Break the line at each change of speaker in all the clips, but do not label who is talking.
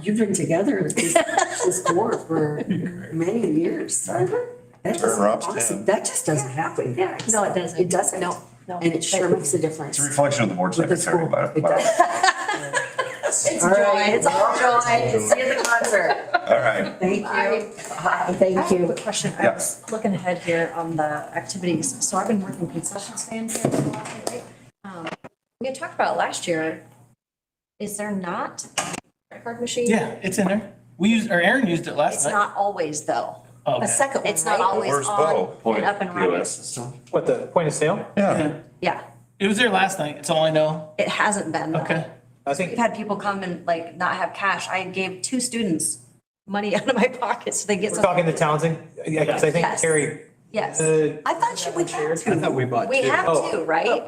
You've been together with this, this board for many years. That is
Turner ups,
awesome.
down.
That just doesn't happen.
Uh-huh. Yeah, no, it doesn't.
It doesn't.
No, no.
And it sure makes a difference.
It's a reflection of the board
With the
secretary,
school.
but,
It
but,
It's
All
joy,
right.
it's all joy, it's see you at the concert.
all right.
Thank you. Thank
I have a
you.
quick question. I
Yeah.
was looking ahead here on the activities. So I've been working concession stand here for a while, right? Um, We had talked about last year, is there not a credit card machine?
Yeah, it's in there. We used, or Aaron used it last
It's
night.
not always though.
Oh.
Okay.
A second one,
It's not
right?
always
Where's
on
Bo?
And up and running.
What, the point of sale?
Yeah,
Yeah.
Yeah,
It was there last night. It's all I know.
it hasn't been. though.
Okay.
I
We've
think,
had people come and like not have cash. I gave two students money out of my pocket so they get
we're
some.
talking to Townsend, yeah, 'cause I think
Yes.
Carrie.
Yes.
uh,
I thought you would have
I thought
to.
we bought
We have
Oh.
to, right?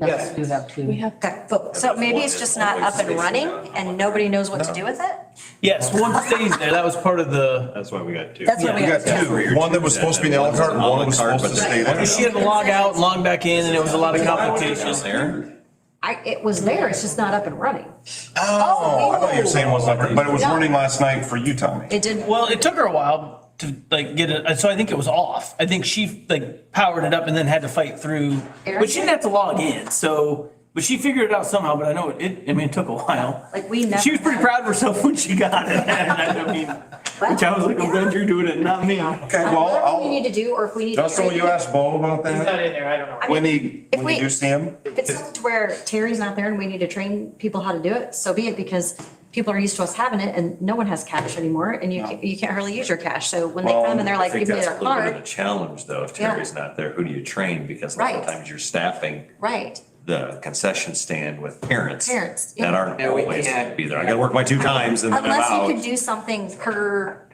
Yes.
You have two.
Okay, cool. So maybe it's just not up and running and nobody knows what to do with it?
Yes, one stays there. That was part of the.
That's why we got two.
That's what
Yeah.
we
we
got.
got two, one that was supposed to be an a la carte, and one was supposed to stay there.
She had to log out and log back in and it was a lot of complication.
there.
I, it was there, it's just not up and running.
Oh, I thought you were saying it was like, but it was running last night for you, Tommy.
It didn't.
Well, it took her a while to like get it. So I think it was off. I think she like powered it up and then had to fight through, but she didn't have to log in. So, but she figured it out somehow, but I know it, I mean, it took a while.
Like, we never-
She was pretty proud of herself when she got it. And I mean, which I was like, I'm glad you're doing it, not me.
Okay, well,
What do we need
I'll,
to do, or if we need. to
Dustin, will you ask Bo about
It's not
that?
in there, I don't know.
When he,
If
when you
we-
do see him?
If it's something to where Terry's not there and we need to train people how to do it, so be it, because people are used to us having it and no one has cash anymore and you, can't- you can't hardly use your cash. So when they
Well,
come and they're
I
like,
think
give me their
that's a little bit of a
card,
challenge though. If
Yeah.
Terry's not there, who do you train? Because a lot
Right.
of times you're staffing
right,
the concession stand with parents.
Parents, yeah.
That aren't
Yeah, we
always
can't.
be there. I gotta work my two times and then I'm
unless you
out.
could do something per,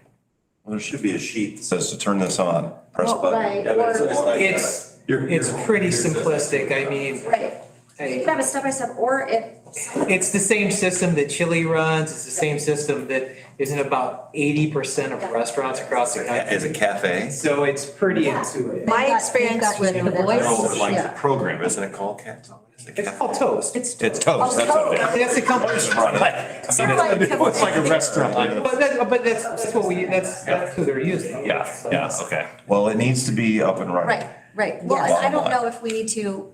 There should be a sheet that says to turn this on, press
Well, Oh, right,
button.
Yeah, but it's or-
like-
It's, it's pretty simplistic, I mean,
right, you
hey,
could have a step by step, or if,
it's the same system that Chili runs, it's the same system that is in about eighty percent of restaurants across the
As a
country.
cafe?
So it's pretty intuitive.
my
got-
experience
they've got
with the
whatever.
boys.
Oh,
No, but like
yeah.
the program, isn't it called Cat?
It's called Toast. It's
It's Toast, that's what it is.
That's the company.
Sort of like-
It's like a restaurant.
But that, but that's, that's what we, that's, that's who they're using.
Yeah, yeah, okay.
Well, it needs to be up and running.
Right, right. Well, and I don't know if we need to,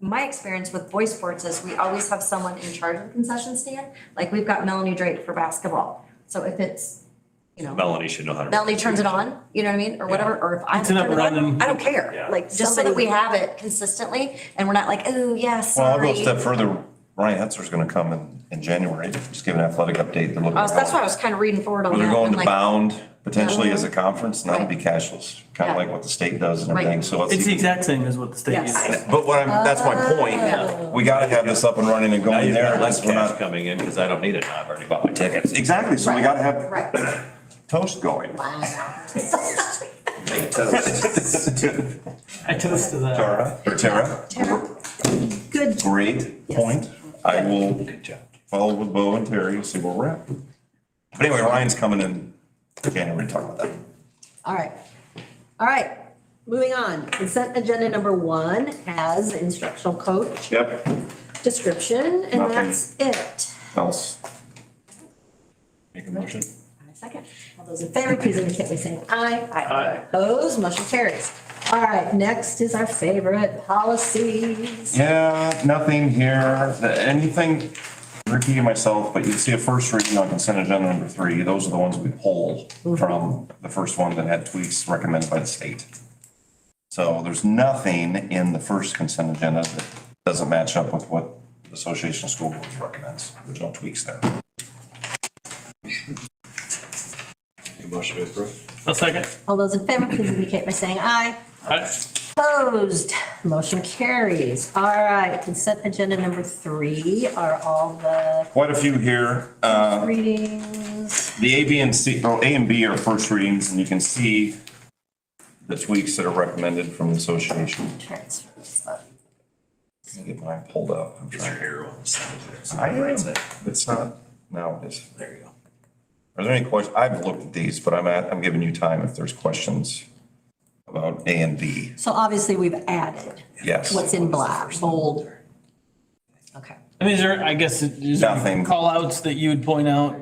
my experience with boy sports is we always have someone in charge of the concession stand. Like we've got Melanie Drake for basketball. So if it's, you know,
Melanie should know how to.
Melanie turns it on, you know what I mean, or whatever, or if I
It's an
turn it on,
up-and-running-
I don't care.
Yeah.
Like, just so that we have it consistently and we're not like, oh, yeah,
Well, I'll go a
sorry.
step further. Ryan Hetzer's gonna come in, in January, just give an athletic update. They're looking
Uh,
at
so That's why I
going-
was kind of reading forward on that.
They're going
I'm
to
like,
bound potentially as a conference, and that'll be
Right.
cashless, kind
Yeah.
of like what the state does and
Right.
everything, so. let's
It's the
see-
exact same as what the state
Yes.
uses.
But what I'm, that's my point. We gotta have this up and running and
Now
going
you've got
there.
less
because we're
cash
not-
coming in because I don't need it. now. I've already bought my tickets.
Exactly, so we gotta have
Right.
toast going.
I toast to that.
Tara, or Tara,
Good.
great point. I will follow with Bo and Terry and see where we're at. But anyway, Ryan's coming in January to talk about that.
All right. All right, moving on. Consent agenda number one has instructional coach
Yep.
description, and
Nothing.
that's it.
Else? Make a motion?
Second, all those in favor, please indicate by saying aye. Aye. Opposed, motion carries. All right, next is our favorite policies.
Yeah, nothing here, The- anything, repeating myself, but you see a first reading on consent agenda number three. Those are the ones we pulled from the first one that had tweaks recommended by the state. So there's nothing in the first consent agenda that doesn't match up with what the Association of School Boards recommends. There's no tweaks there.
A second.
All those in favor, please indicate by saying aye.
All right.
Opposed, motion carries. All right, consent agenda number three are all the
Quite a few here. Uh,
readings.
The A, B, and C, well, A and B are first readings, and you can see the tweaks that are recommended from the association.
transfers, but-
Let me Get mine pulled up. I'm trying. I am. It's not, now it is. There you go. Are there any questions? I've looked at these, but I'm at, I'm giving you time if there's questions about A and B.
So obviously, we've added
Yes.
what's in black, bold. Okay.
I mean, is there, I guess, is there
Nothing.
call outs that you would point out?